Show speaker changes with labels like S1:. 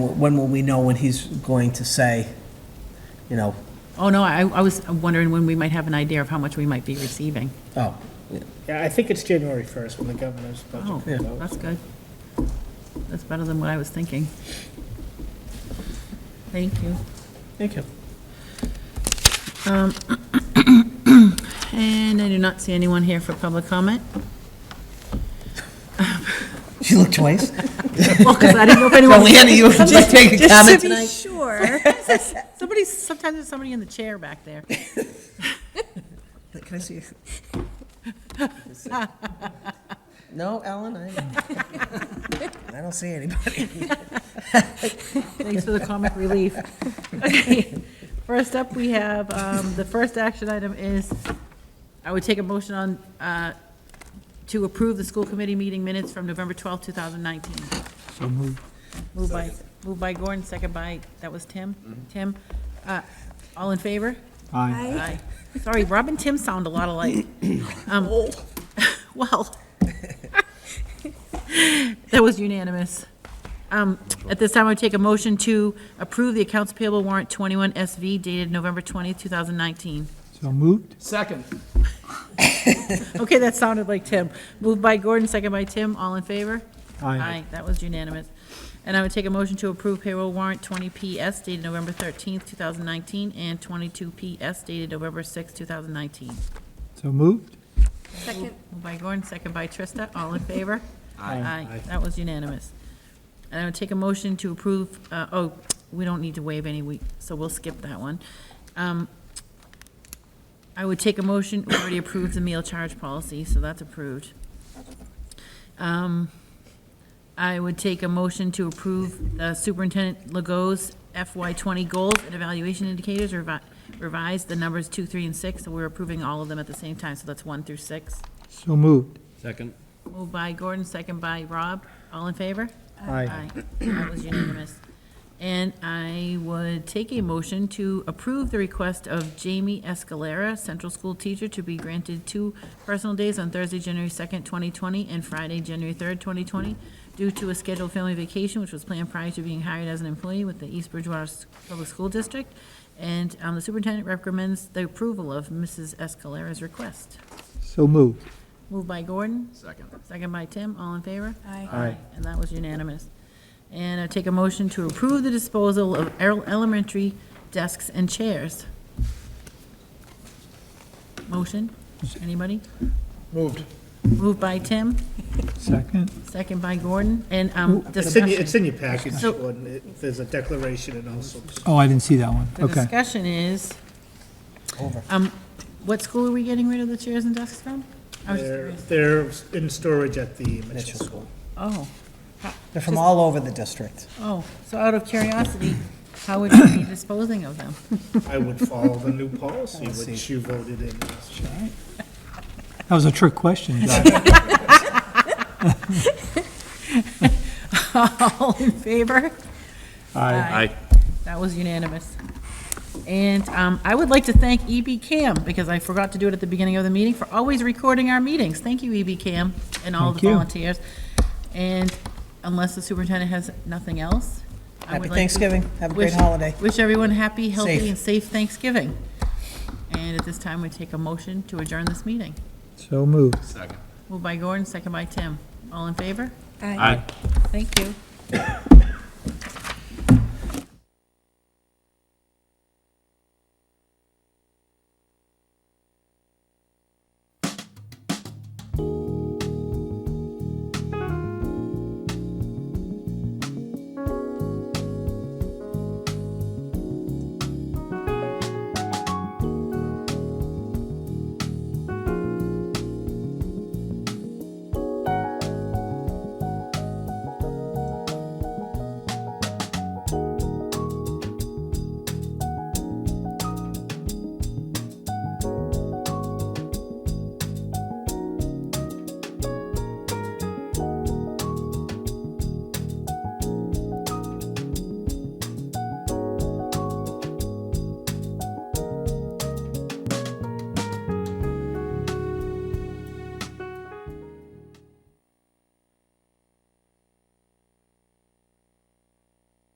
S1: When will we know when he's going to say, you know,
S2: Oh, no, I, I was wondering when we might have an idea of how much we might be receiving.
S1: oh,
S3: Yeah, I think it's January 1st when the governor's
S2: Oh,
S3: budget comes out.
S2: that's good. That's better than what I was thinking. Thank you.
S1: thank you.
S2: And I do not see anyone here for public comment.
S1: She looked twice.
S2: Well, because Oh, I didn't know if anyone was.
S1: Leanna, you would you take a comment
S2: Just to
S1: tonight?
S2: be sure. Somebody, sometimes there's somebody in the chair back there.
S1: Can I see? No, Ellen, I, I don't see anybody.
S2: Thanks for the comic relief. Okay. First up, we have, um, the first action item is, I would take a motion on, uh, to approve the school committee meeting minutes from November twelfth, two thousand nineteen. So moved. Moved by, moved by Gordon, second by, that was Tim? Tim? Uh, all in favor? Aye. Sorry, Rob and Tim sound a lot alike. Um, Well, that was unanimous. Um, At this time, I would take a motion to approve the accounts payable warrant 21SV dated November 20th, 2019.
S4: So moved?
S3: Second.
S2: Okay, that sounded like Tim. Moved by Gordon, second by Tim. All in favor? Aye, that was unanimous. And I would take a motion to approve payroll warrant 20PS dated November 13th, 2019, and 22PS dated November 6th, 2019.
S4: So moved?
S5: Second.
S2: Moved by Gordon, second by Trista. All in favor? Aye. That was unanimous. And I would take a motion to approve, uh, oh, we don't need to waive any week, so we'll skip that one. Um, I would take a motion, we already approved the meal charge policy, so that's approved. Um, I would take a motion to approve uh, Superintendent Legault's FY twenty goals and evaluation indicators revi- revised, the numbers two, three, and six, so we're approving all of them at the same time, so that's one through six.
S4: So moved?
S6: Second.
S2: Moved by Gordon, second by Rob. All in favor?
S4: Aye.
S2: That was unanimous. And I would take a motion to approve the request of Jamie Escalera, central school teacher, to be granted two personal days on Thursday, January 2nd, 2020, and Friday, January 3rd, 2020, due to a scheduled family vacation which was planned prior to being hired as an employee with the East Bridgewater S- Public School District. And um, the superintendent recommends the approval of Mrs. Escalera's request.
S4: So moved?
S2: Moved by Gordon,
S6: Second.
S2: Second by Tim, all in favor?
S5: Aye.
S4: Aye.
S2: And that was unanimous. And I take a motion to approve the disposal of el- elementary desks and chairs. Motion, anybody?
S3: Moved.
S2: Moved by Tim,
S4: Second?
S2: second by Gordon, and um,
S3: It's in, your-
S2: discussion.
S3: it's in your package,
S2: So-
S3: Gordon. It- There's a declaration and also,
S4: Oh, I didn't see that one.
S2: The
S4: Okay.
S2: discussion is, um, what school are we getting rid of the chairs and desks from? I was just
S3: they're,
S2: curious.
S3: they're in storage at the Mitchell
S1: Mitchell
S3: School.
S2: Oh,
S1: They're from all over the district.
S2: oh, so out of curiosity, how would you be disposing of them?
S3: I would follow the new policy which you voted in.
S4: That was a trick question, Doc.
S2: All in favor?
S4: Aye.
S6: Aye.
S2: That was unanimous. And um, I would like to thank EB Cam, because I forgot to do it at the beginning of the meeting, for always recording our meetings. Thank you, EB Cam, and all the
S4: Thank you.
S2: volunteers. And unless the superintendent has nothing else. I
S1: Happy
S2: would like to
S1: Thanksgiving. Have a great
S2: wish-
S1: holiday.
S2: Wish everyone happy,
S1: Safe.
S2: healthy, and safe Thanksgiving. And at this time, we take a motion to adjourn this meeting.
S4: So moved?
S6: Second.
S2: Moved by Gordon, second by Tim. All in favor?
S5: Aye.
S6: Aye.
S2: Thank you.